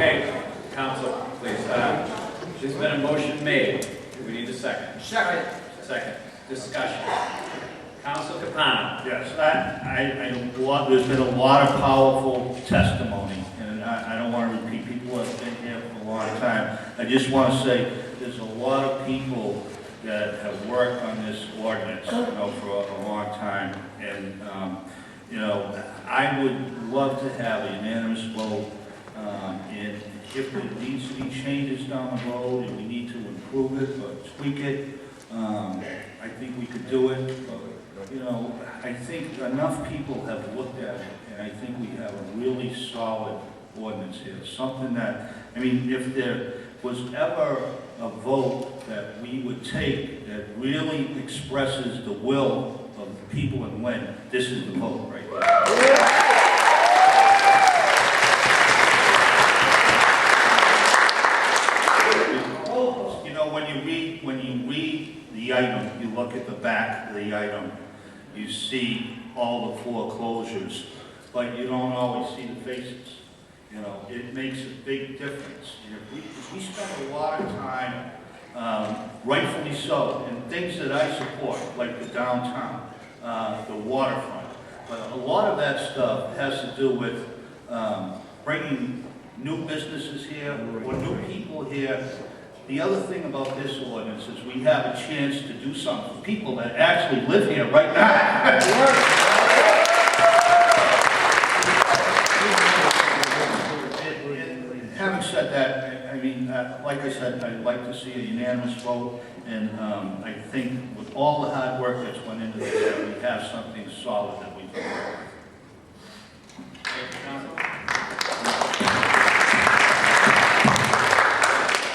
Okay, council, please, uh, there's been a motion made. Do we need a second? Second. Second, discussion. Council Capano. Yes, I, I, I, lot- there's been a lot of powerful testimony, and I, I don't want to repeat people that's been here for a long time. I just want to say, there's a lot of people that have worked on this ordinance, you know, for a- a long time, and, um, you know, I would love to have a unanimous vote, um, and if there needs to be changes down the road, and we need to improve it or tweak it, um, I think we could do it, but you know, I think enough people have looked at it, and I think we have a really solid ordinance here, something that, I mean, if there was ever a vote that we would take that really expresses the will of the people in Lynn, this is the vote right here. You know, when you read, when you read the item, you look at the back of the item, you see all the foreclosures, but you don't always see the faces. You know, it makes a big difference. And if we, if we spend a lot of time, um, rightfully so, in things that I support, like the downtown, uh, the waterfront, but a lot of that stuff has to do with, um, bringing new businesses here, or new people here, the other thing about this ordinance is we have a chance to do something for people that actually live here right now. And- and Having said that, I- I mean, uh, like I said, I'd like to see a unanimous vote, and um, I think with all the hard work that's went into this, that we have something solid that we can work with. Thank you, council.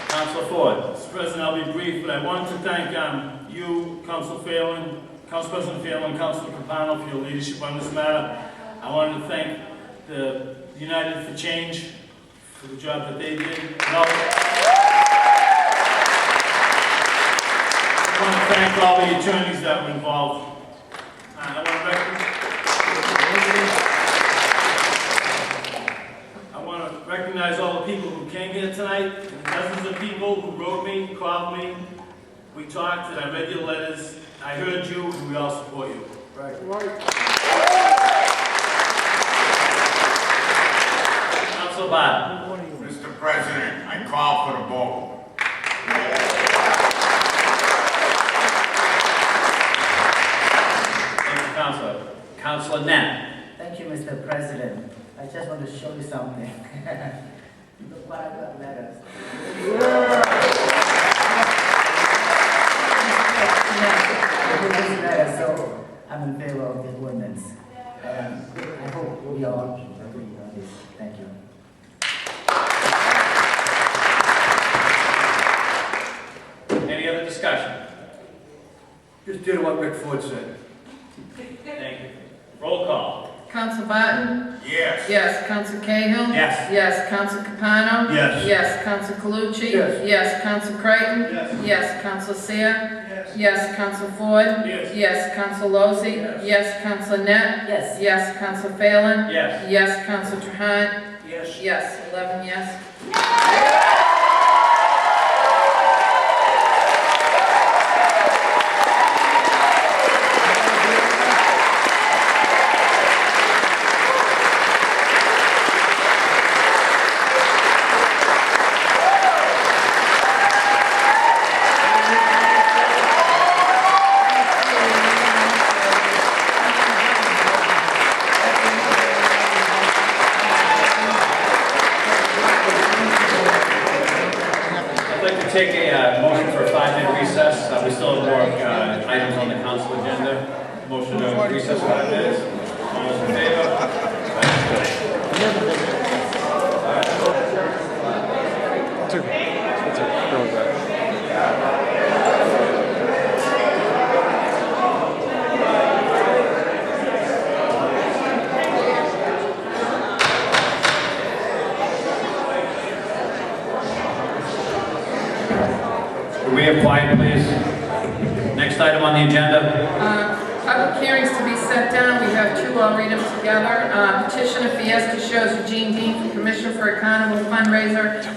Council Ford. Mr. President, I'll be brief, but I wanted to thank um, you, Council Phelan, Council President Phelan, Council Capano for your leadership on this matter. I wanted to thank the United for Change for the job that they did. And all- I want to thank all the attorneys that were involved. Uh, I want to recognize- I want to recognize all the people who came here tonight, and the dozens of people who wrote me, called me. We talked, and I read your letters. I heard you, and we all support you. Right. Council Biden. Mr. President, I call for the vote. Thank you, Council. Council Net. Thank you, Mr. President. I just want to show you something. Look what I got letters. These letters, So I'm in favor of the ordinance. Um, I hope we all agree on this. Thank you. Any other discussion? Just did what Rick Ford said. Thank you. Roll call. Council Barton? Yes, Yes. Council Cahill? Yes. Yes. Council Capano? Yes. Yes. Council Calucci? Yes. Yes. Council Creighton? Yes. Yes. Council Seer? Yes. Yes. Council Ford? Yes. Yes. Council Lozey? Yes. Yes. Council Net? Yes. Yes. Council Phelan? Yes. Yes. Council Trahan? Yes. Yes. Eleven yes. I'd like to take a uh, motion for a five-minute recess. Uh, We still have more uh, items on the council agenda. Motion to recess five minutes. All those in favor? Reapply, please. Next item on the agenda. Uh, Public hearings to be set down, we have two, I'll read them together. Uh, Petition of Fiesta shows Eugene Dean for permission for a carnival fundraiser